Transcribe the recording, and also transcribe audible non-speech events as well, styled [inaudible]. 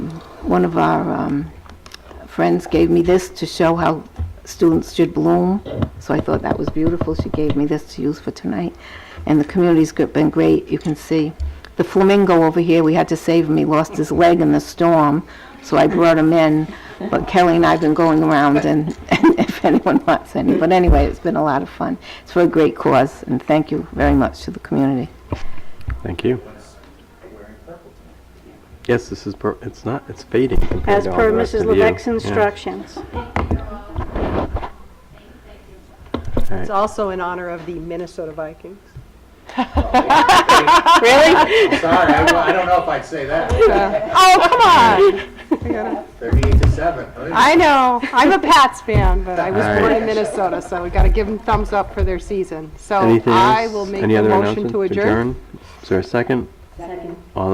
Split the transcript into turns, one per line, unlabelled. one of our um, friends gave me this to show how students should bloom, so I thought that was beautiful. She gave me this to use for tonight, and the community's go- been great. You can see the flamingo over here, we had to save him. He lost his leg in the storm, so I brought him in. But Kelly and I have been going around, and [laughs] and if anyone wants any, but anyway, it's been a lot of fun. It's for a great cause, and thank you very much to the community.
Thank you. Yes, this is, pur- it's not, it's fading compared
As
to all
per
the rest
Mrs.
of you.
Levesque's
Yeah.
instructions.
It's also in honor of the Minnesota Vikings.
I'm sorry, I, wa- I don't know if I'd say that.
Oh, come on!
Thirty-eight to seven. huh?
I know, I'm a Pats fan, but I was
All
born
right.
in Minnesota, so we gotta give them thumbs up for their season. So
Anything
Oh, I
else?
will make
Any
a
other
motion
announcements?
to adjourn.
Is there a second? Second. All